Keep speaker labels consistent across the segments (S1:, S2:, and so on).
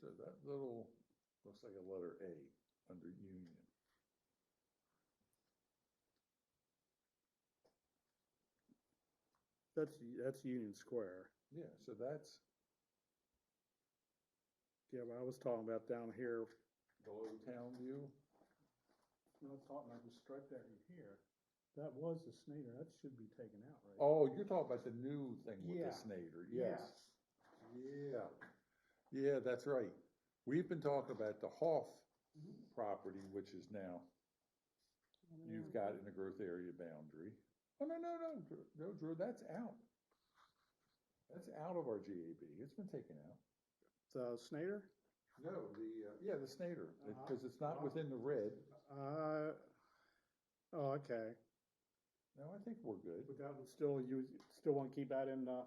S1: that little, looks like a letter A under union.
S2: That's, that's Union Square.
S1: Yeah, so that's,
S2: Yeah, but I was talking about down here,
S1: below town view,
S2: I was talking about the stripe down here. That was the Snyder, that should be taken out, right?
S1: oh, you're talking about the new thing with
S2: Yeah.
S1: the Snyder, yes. Yeah, yeah, that's right. We've been talking about the Hoff
S2: Mm-hmm.
S1: property, which is now, you've got in the growth area boundary. Oh, no, no, no, Dr- no, Drew, that's out. That's out of our GAB, it's been taken out.
S2: The Snyder?
S1: No, the, yeah, the Snyder,
S2: uh, Uh-huh.
S1: because it's not within the red.
S2: Uh, oh, okay.
S1: No, I think we're good.
S2: But that would still, you still want to keep that in uh, the,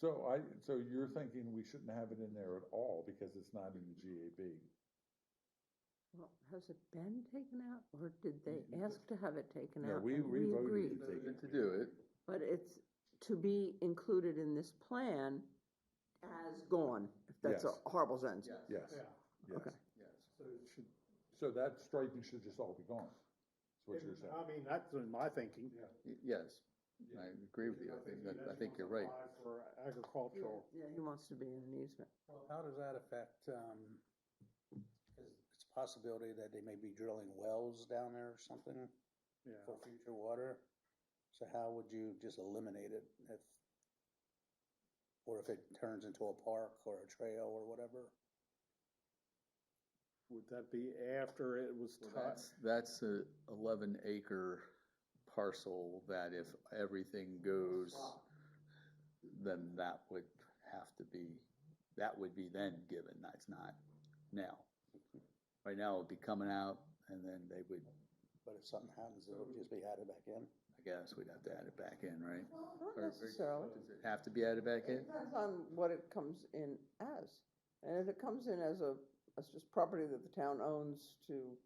S1: So I, so you're thinking we shouldn't have it in there at all because it's not in the GAB?
S3: Well, has it been taken out, or did they
S1: Mm,
S3: ask to have it taken
S1: No,
S3: out?
S1: we-
S3: and
S1: we voted
S3: agreed?
S1: to take it.
S4: to do it.
S3: But it's to be included in this plan as gone, if that's a
S1: Yes.
S3: horrible sentence.
S1: Yes,
S2: yeah.
S1: yes.
S3: Okay.
S4: Yes.
S2: So it should,
S1: So that striping should just all be gone, is what you're saying.
S2: I mean, that's in my thinking.
S4: Y- Yes, I agree with you. I think, that- I think you're right.
S2: For agricultural.
S3: Yeah, he wants to be in an easement.
S5: Well, how does that affect, um, is- it's a possibility that they may be drilling wells down there or something
S2: Yeah,
S5: for future water? So how would you just eliminate it if, or if it turns into a park or a trail or whatever?
S2: would that be after it was
S4: Well,
S2: touched?
S4: That's, that's a eleven acre parcel that if everything goes, then that would have to be, that would be then given, that's not now. Right now, it'd be coming out and then they would,
S5: But if something happens, it'll just be added back in?
S4: I guess we'd have to add it back in, right?
S3: Not
S4: Or- or-
S3: necessarily.
S4: Does it have to be added back in?
S3: Depends on what it comes in as. And if it comes in as a, as just property that the town owns to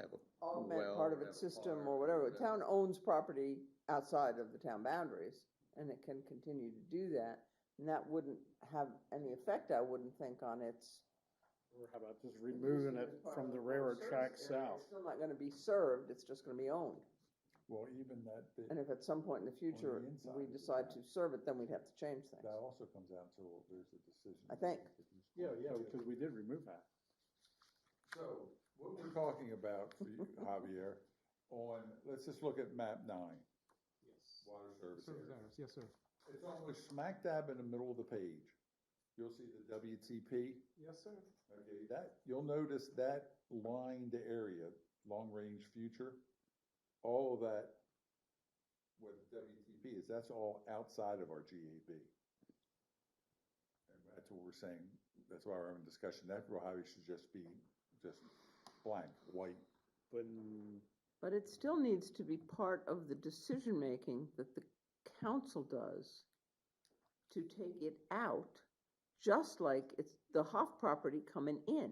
S4: Have a
S3: augment
S4: well,
S3: part of
S4: have a
S3: its system
S4: park,
S3: or whatever. The town owns property outside of the town boundaries, and it can continue to do that. And that wouldn't have any effect, I wouldn't think, on its.
S2: Or how about just removing it from the railroad track south?
S3: It's still not gonna be served, it's just gonna be owned.
S1: Well, even that bit,
S3: And if at some point in the future,
S1: inside
S3: we
S1: it's
S3: decide
S1: not.
S3: to serve it, then we'd have to change things.
S1: that also comes out till there's a decision.
S3: I think.
S2: Yeah, yeah, because we did remove that.
S1: So, what we're talking about for you, Javier, on, let's just look at map nine. Yes. Water service area.
S6: yes, sir.
S1: It's almost smack dab in the middle of the page. You'll see the WTP.
S6: Yes, sir.
S1: Okay, that, you'll notice that lined area, long-range future, all of that, what WTP is, that's all outside of our GAB. And that's what we're saying, that's why we're having a discussion, that Mojave should just be, just blank, white.
S2: But mm,
S3: But it still needs to be part of the decision-making that the council does to take it out, just like it's, the Hoff property coming in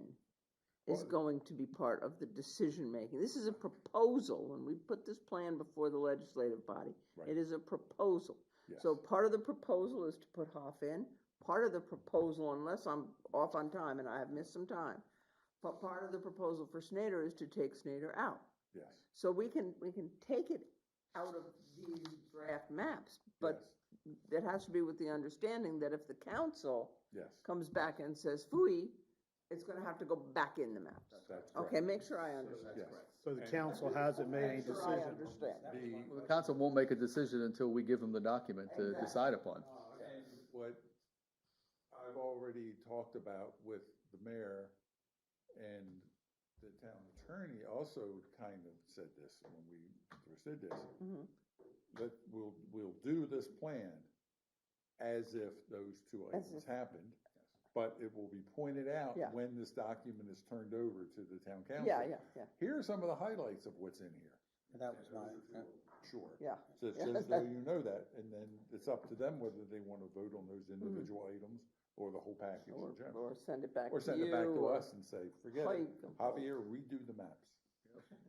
S3: is
S1: Well-
S3: going to be part of the decision-making. This is a proposal. When we put this plan before the legislative body,
S1: Right.
S3: it is a proposal.
S1: Yes.
S3: So part of the proposal is to put Hoff in, part of the proposal, unless I'm off on time and I have missed some time, but part of the proposal for Snyder is to take Snyder out.
S1: Yes,
S3: So we can, we can take it out of these draft maps, but
S1: yes,
S3: it has to be with the understanding that if the council
S1: yes,
S3: comes back and says fooey, it's gonna have to go back in the maps.
S1: that's correct.
S3: Okay, make sure I understand.
S1: Yes.
S2: So the council hasn't made any
S3: Make sure I
S2: decision.
S3: understand.
S1: The,
S4: Well, The council won't make a decision until we give them the document to
S3: Exactly.
S4: decide upon.
S1: And what I've already talked about with the mayor and the town attorney also kind of said this when we first did this,
S3: Mhm.
S1: that we'll, we'll do this plan as if those two
S3: As
S1: items
S3: if-
S1: happened, but it will be pointed out
S3: Yeah.
S1: when this document is turned over to the town council.
S3: Yeah, yeah, yeah,
S1: Here are some of the highlights of what's in here.
S5: And That was my,
S1: Sure.
S3: yeah.
S1: So it's just so you know that, and then it's up to them whether they want to vote on those
S3: Mm-hmm.
S1: individual items or the whole package
S3: Or,
S1: in general.
S3: or send it back to you.
S1: Or send it back to us and say, forget
S3: how
S1: it,
S3: you can vote.
S1: Javier, redo the maps.